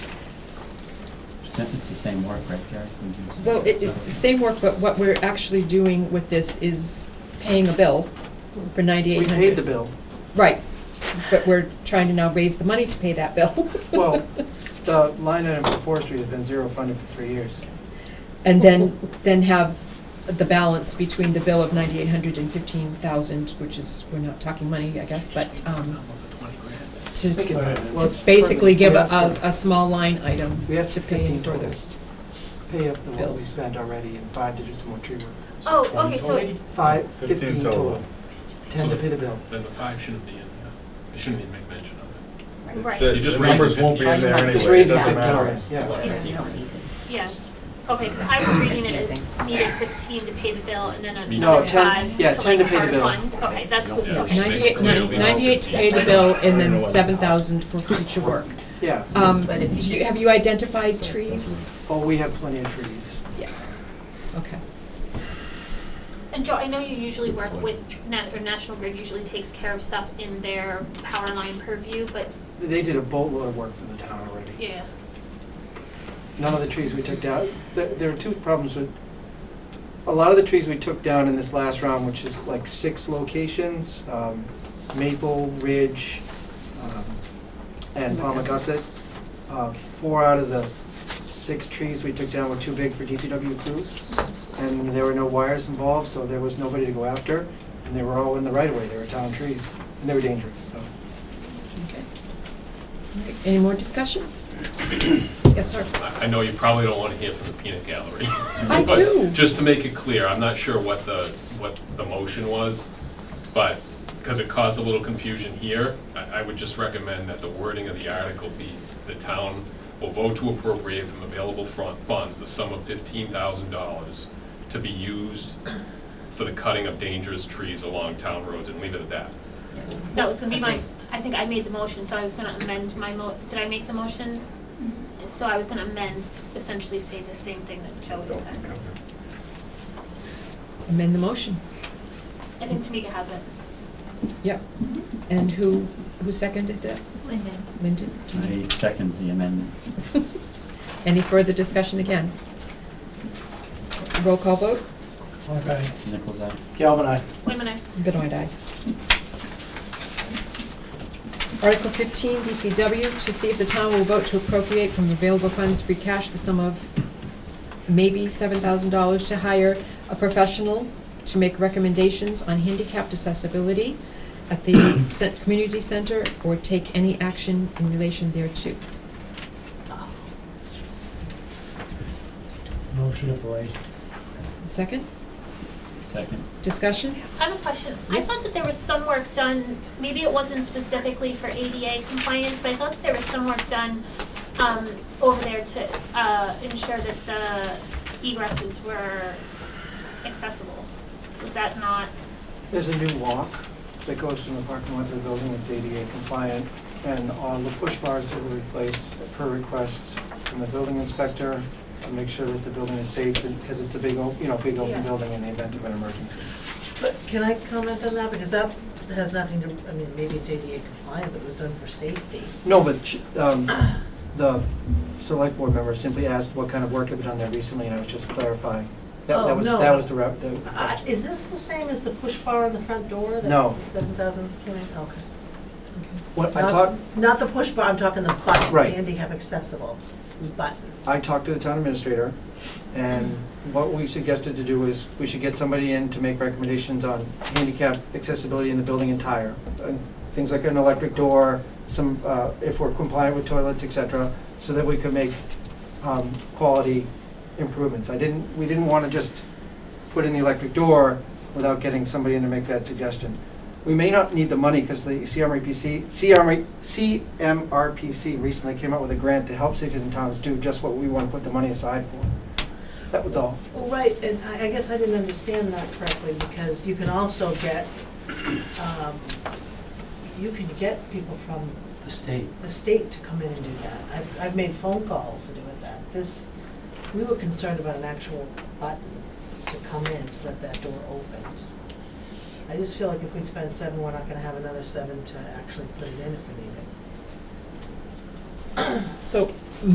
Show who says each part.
Speaker 1: So It's the same work, right, Jack? Would you say?
Speaker 2: Well, it, it's the same work, but what we're actually doing with this is paying a bill for
Speaker 3: We
Speaker 2: ninety-eight hundred.
Speaker 3: paid the bill.
Speaker 2: Right, but we're trying to now raise the money to pay that bill.
Speaker 3: Well, the line item for forestry has been zero funded for three years.
Speaker 2: And then, then have the balance between the bill of ninety-eight hundred and fifteen thousand, which is, we're not talking money, I guess, but, um, to,
Speaker 3: Think it-
Speaker 2: to
Speaker 4: Right.
Speaker 3: well,
Speaker 2: basically give a,
Speaker 3: we
Speaker 2: a,
Speaker 3: asked
Speaker 2: a small line item
Speaker 3: for- We asked
Speaker 2: to
Speaker 3: for
Speaker 2: pay
Speaker 3: fifteen
Speaker 2: further.
Speaker 3: dollars. Pay up the one we
Speaker 2: bills.
Speaker 3: spent already and five to do some more tree work.
Speaker 5: Oh,
Speaker 4: So
Speaker 5: okay, so,
Speaker 4: 20
Speaker 3: Five,
Speaker 4: Fifteen
Speaker 3: fifteen
Speaker 4: total.
Speaker 3: total. Ten to pay the bill.
Speaker 6: Then the five shouldn't be in, uh, it shouldn't even make mention of it.
Speaker 5: right,
Speaker 4: The-
Speaker 6: You just
Speaker 4: The
Speaker 6: raise
Speaker 4: numbers
Speaker 6: it
Speaker 4: won't be in there
Speaker 7: fifty.
Speaker 4: anyway,
Speaker 3: Just
Speaker 4: it
Speaker 3: raising
Speaker 4: doesn't
Speaker 3: fifteen
Speaker 4: matter.
Speaker 3: dollars, yeah.
Speaker 6: Whatever.
Speaker 7: Yeah, you don't need it.
Speaker 5: yeah. Okay, because I was reading it as needed fifteen to pay the bill and then
Speaker 6: Me
Speaker 3: No,
Speaker 5: another
Speaker 3: ten-
Speaker 5: five.
Speaker 3: yeah,
Speaker 5: to,
Speaker 3: 10 to
Speaker 5: like,
Speaker 3: pay the
Speaker 5: hard
Speaker 3: bill.
Speaker 5: fund. Okay, that's what,
Speaker 6: Yeah.
Speaker 5: okay.
Speaker 2: Ninety-eight, nine- ninety-eight to pay the bill and then seven thousand for future work.
Speaker 3: Yeah,
Speaker 2: Um,
Speaker 7: But if you
Speaker 2: do you,
Speaker 7: just-
Speaker 2: have you identified trees?
Speaker 3: oh, we have plenty of trees.
Speaker 2: Yeah, okay.
Speaker 5: And Joe, I know you usually work with, Nat- or National Grid usually takes care of stuff in their power line purview, but,
Speaker 3: They did a boatload of work for the town already.
Speaker 5: yeah.
Speaker 3: none of the trees we took down, there, there were two problems with, a lot of the trees we took down in this last round, which is like six locations, um, Maple, Ridge, um, and Palmagussit. Uh, four out of the six trees we took down were too big for DPW crews, and there were no wires involved, so there was nobody to go after, and they were all in the right of way, they were town trees, and they were dangerous, so.
Speaker 2: Okay. All right, Any more discussion? Yes, sir.
Speaker 6: I I know you probably don't want to hear from the peanut gallery.
Speaker 2: I
Speaker 6: but
Speaker 2: do.
Speaker 6: Just to make it clear, I'm not sure what the, what the motion was, but, because it caused a little confusion here, I, I would just recommend that the wording of the article be, the town will vote to appropriate from available front funds the sum of fifteen thousand dollars to be used for the cutting of dangerous trees along town roads, and leave it at that.
Speaker 5: That was gonna be my, I think I made the motion, so I was gonna amend my mo, did I make the motion? So I was gonna amend to essentially say the same thing that Joe had said.
Speaker 2: Amend the motion.
Speaker 5: I think Tamika has it.
Speaker 2: Yep.
Speaker 7: Mm-hmm.
Speaker 2: And who, who seconded that?
Speaker 7: Lyndon.
Speaker 2: Lyndon?
Speaker 1: I second the amendment.
Speaker 2: Any further discussion again? Roll call vote?
Speaker 4: Okay.
Speaker 1: Nichols, aye?
Speaker 4: Galvin, aye.
Speaker 5: Wait a minute.
Speaker 2: Benoit, aye. Article fifteen, DPW, to see if the town will vote to appropriate from available funds free cash the sum of maybe seven thousand dollars to hire a professional to make recommendations on handicapped accessibility at the cen- community center or take any action in relation thereto.
Speaker 4: Motion to place.
Speaker 2: Second,
Speaker 1: Second.
Speaker 2: discussion?
Speaker 5: I have a question. I
Speaker 2: Yes.
Speaker 5: thought that there was some work done, maybe it wasn't specifically for ADA compliance, but I thought that there was some work done um, over there to uh, ensure that the egresses were accessible. Was that not?
Speaker 3: There's a new walk that goes from the parking lot to the building that's ADA compliant, and all the push bars that were replaced per request from the building inspector to make sure that the building is safe, and- because it's a big, o- you know, big
Speaker 5: Yeah.
Speaker 3: open building in the event of an emergency.
Speaker 8: But can I comment on that? Because that has nothing to, I mean, maybe it's ADA compliant, but it was done for safety.
Speaker 3: No, but sh- um, the select board member simply asked what kind of work had been done there recently, and I was just clarifying. That that
Speaker 8: Oh,
Speaker 3: was,
Speaker 8: no.
Speaker 3: that was the rep, the
Speaker 8: Uh,
Speaker 3: question.
Speaker 8: Is this the same as the push bar on the front door? that
Speaker 3: No.
Speaker 8: was 7,000, can I- okay.
Speaker 3: What I
Speaker 8: Not-
Speaker 3: talked,
Speaker 8: Not the push bar, I'm talking the button,
Speaker 3: Right.
Speaker 8: handicap accessible button.
Speaker 3: I talked to the town administrator, and what we suggested to do was, we should get somebody in to make recommendations on handicap accessibility in the building entire. and Things like an electric door, some, uh, if we're compliant with toilets, et cetera, so that we could make, um, quality improvements. I didn't, we didn't wanna just put in the electric door without getting somebody in to make that suggestion. We may not need the money because the CMRPC, CMR CMRPC recently came out with a grant to help cities and towns do just what we want to put the money aside for. That was all.
Speaker 8: Well, right, and I, I guess I didn't understand that correctly, because you can also get, um, you can get people from
Speaker 9: The state.
Speaker 8: the state to come in and do that. I've, I've made phone calls to do with that. This, we were concerned about an actual button to come in so that that door opens. I just feel like if we spend seven, we're not gonna have another seven to actually put it in if we need it.
Speaker 2: So